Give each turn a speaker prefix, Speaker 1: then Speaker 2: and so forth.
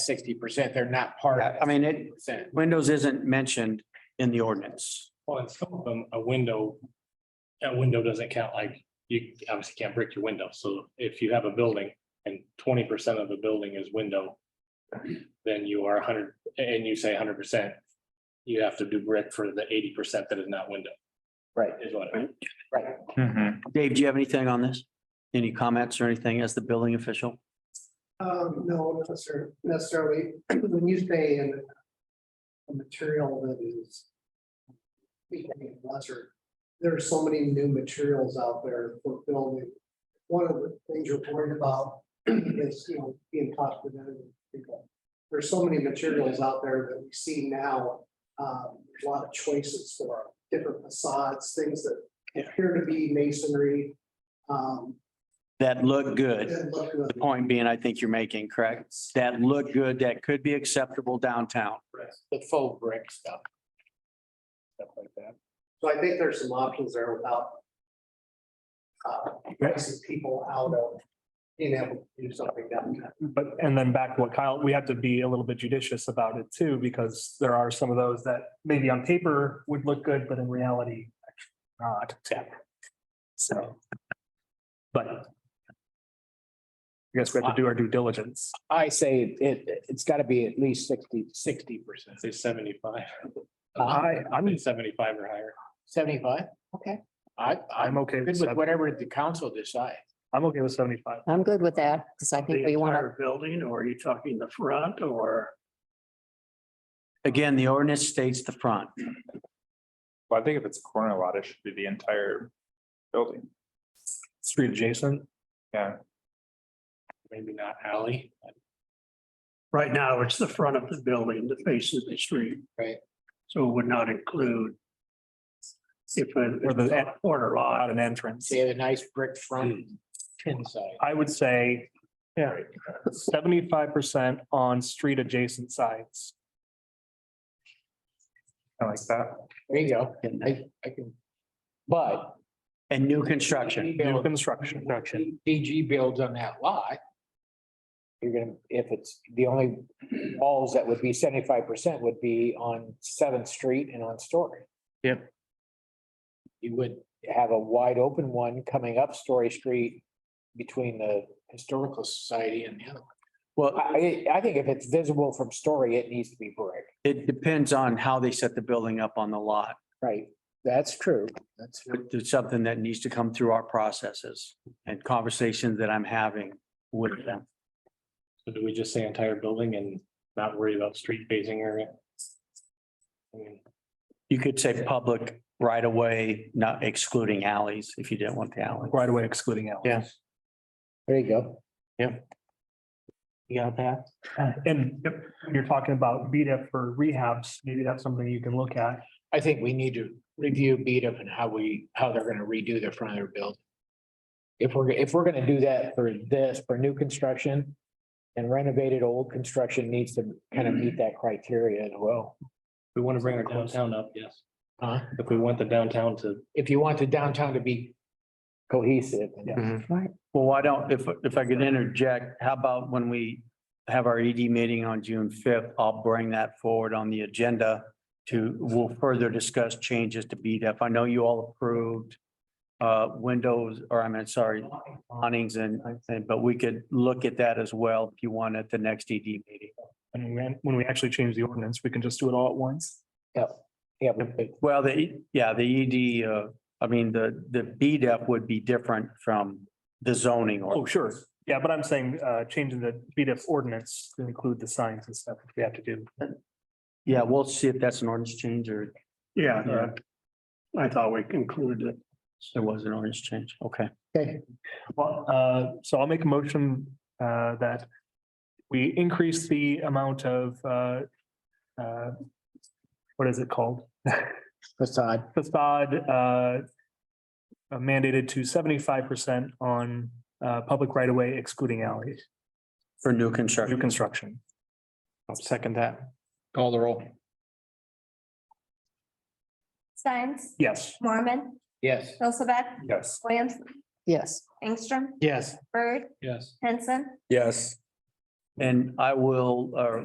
Speaker 1: sixty percent, they're not part of
Speaker 2: I mean, it,
Speaker 1: percent.
Speaker 2: windows isn't mentioned in the ordinance.
Speaker 3: Well, and some of them, a window, a window doesn't count, like, you obviously can't break your window, so if you have a building and twenty percent of the building is window. Then you are hundred, and you say hundred percent, you have to do brick for the eighty percent that is not window.
Speaker 1: Right.
Speaker 3: Is what I mean.
Speaker 2: Dave, do you have anything on this? Any comments or anything as the building official?
Speaker 4: Um, no, not necessar- necessarily, when you say in a material that is becoming lesser, there are so many new materials out there for building. One of the things you're worried about is, you know, being cost competitive. There's so many materials out there that we see now, um, there's a lot of choices for different facades, things that appear to be masonry. Um,
Speaker 2: That look good.
Speaker 4: that look good.
Speaker 2: The point being, I think you're making, correct? That look good, that could be acceptable downtown.
Speaker 1: The faux brick stuff. Stuff like that.
Speaker 4: So I think there's some options there without. Uh, pricing people out of being able to do something downtown.
Speaker 5: But, and then back to what Kyle, we have to be a little bit judicious about it too, because there are some of those that maybe on paper would look good, but in reality, not. So. But. I guess we have to do our due diligence.
Speaker 1: I say it, it's gotta be at least sixty, sixty percent.
Speaker 3: Say seventy-five.
Speaker 5: I, I'm,
Speaker 3: Uh, Seventy-five or higher.
Speaker 1: Seventy-five? Okay. I, I'm
Speaker 5: I'm okay
Speaker 1: good with
Speaker 5: with, sev-
Speaker 1: whatever the council decides.
Speaker 5: I'm okay with seventy-five.
Speaker 6: I'm good with that, because I think we want to,
Speaker 7: building, or are you talking the front or?
Speaker 2: Again, the ordinance states the front.
Speaker 8: Well, I think if it's a corner lot, it should be the entire building.
Speaker 5: Street adjacent,
Speaker 3: Maybe not alley.
Speaker 7: Right now, it's the front of the building, the face of the street.
Speaker 1: Right.
Speaker 7: So it would not include. If it
Speaker 5: Or
Speaker 7: or
Speaker 5: the-
Speaker 7: the corner
Speaker 5: not
Speaker 7: lot,
Speaker 5: an entrance.
Speaker 1: They have a nice brick front tin side.
Speaker 5: I would say, yeah, seventy-five percent on street adjacent sides.
Speaker 8: I like that.
Speaker 1: There you go. I, I can. But.
Speaker 2: And new construction.
Speaker 5: New
Speaker 1: DG
Speaker 5: construction.
Speaker 1: builds on that lot. You're gonna, if it's, the only walls that would be seventy-five percent would be on Seventh Street and on Story.
Speaker 5: Yep.
Speaker 1: You would have a wide open one coming up Story Street between the Historical Society and the other one.
Speaker 2: Well,
Speaker 1: I, I I think if it's visible from Story, it needs to be brick.
Speaker 2: it depends on how they set the building up on the lot.
Speaker 1: Right. That's true. That's.
Speaker 2: But it's something that needs to come through our processes and conversations that I'm having with them.
Speaker 3: So do we just say entire building and not worry about street facing area? I mean,
Speaker 2: You could say public right away, not excluding alleys, if you didn't want the alley.
Speaker 5: Right away excluding out.
Speaker 2: Yeah.
Speaker 1: There you go.
Speaker 2: You got that?
Speaker 5: And if you're talking about BDF for rehabs, maybe that's something you can look at.
Speaker 1: I think we need to review beat up and how we, how they're gonna redo the front of their building. If we're, if we're gonna do that for this, for new construction. And renovated old construction needs to kind of meet that criteria as well.
Speaker 3: We want to bring our downtown up, yes.
Speaker 1: Huh?
Speaker 3: If we want the downtown to
Speaker 1: If you want the downtown to be cohesive. and
Speaker 2: Mm-hmm. Well, why don't, if, if I could interject, how about when we have our ED meeting on June fifth, I'll bring that forward on the agenda to, we'll further discuss changes to BDEF. I know you all approved uh, windows, or I mean, sorry, awnings and, and- but we could look at that as well if you want at the next ED meeting.
Speaker 5: And when, when we actually change the ordinance, we can just do it all at once.
Speaker 1: Yeah, but
Speaker 2: Well, the, E, yeah, the ED, uh, I mean, the, the BDEF would be different from the zoning
Speaker 5: Oh,
Speaker 2: or,
Speaker 5: sure. Yeah, but I'm saying, uh, changing the BDF ordinance to include the signs and stuff if we have to do.
Speaker 2: yeah, we'll see if that's an ordinance change or
Speaker 7: yeah. yeah. I thought we concluded it.
Speaker 2: there was an ordinance change. Okay.
Speaker 5: Well, uh, so I'll make a motion, uh, that we increase the amount of, uh, uh, what is it called?
Speaker 1: facade,
Speaker 5: Facade, uh, mandated to seventy-five percent on, uh, public right-of-way excluding alleys,
Speaker 2: For new
Speaker 5: new
Speaker 2: construction.
Speaker 5: construction.
Speaker 1: I'll second that.
Speaker 8: Call the roll.
Speaker 9: Steins,
Speaker 5: Yes.
Speaker 9: Mormon,
Speaker 1: Yes.
Speaker 9: Hilsaback,
Speaker 5: Yes.
Speaker 9: Williams,
Speaker 6: yes.
Speaker 9: Ingstrom,
Speaker 1: Yes.
Speaker 9: Bird,
Speaker 3: Yes.
Speaker 9: Henson,
Speaker 8: Yes.
Speaker 2: And I will, uh,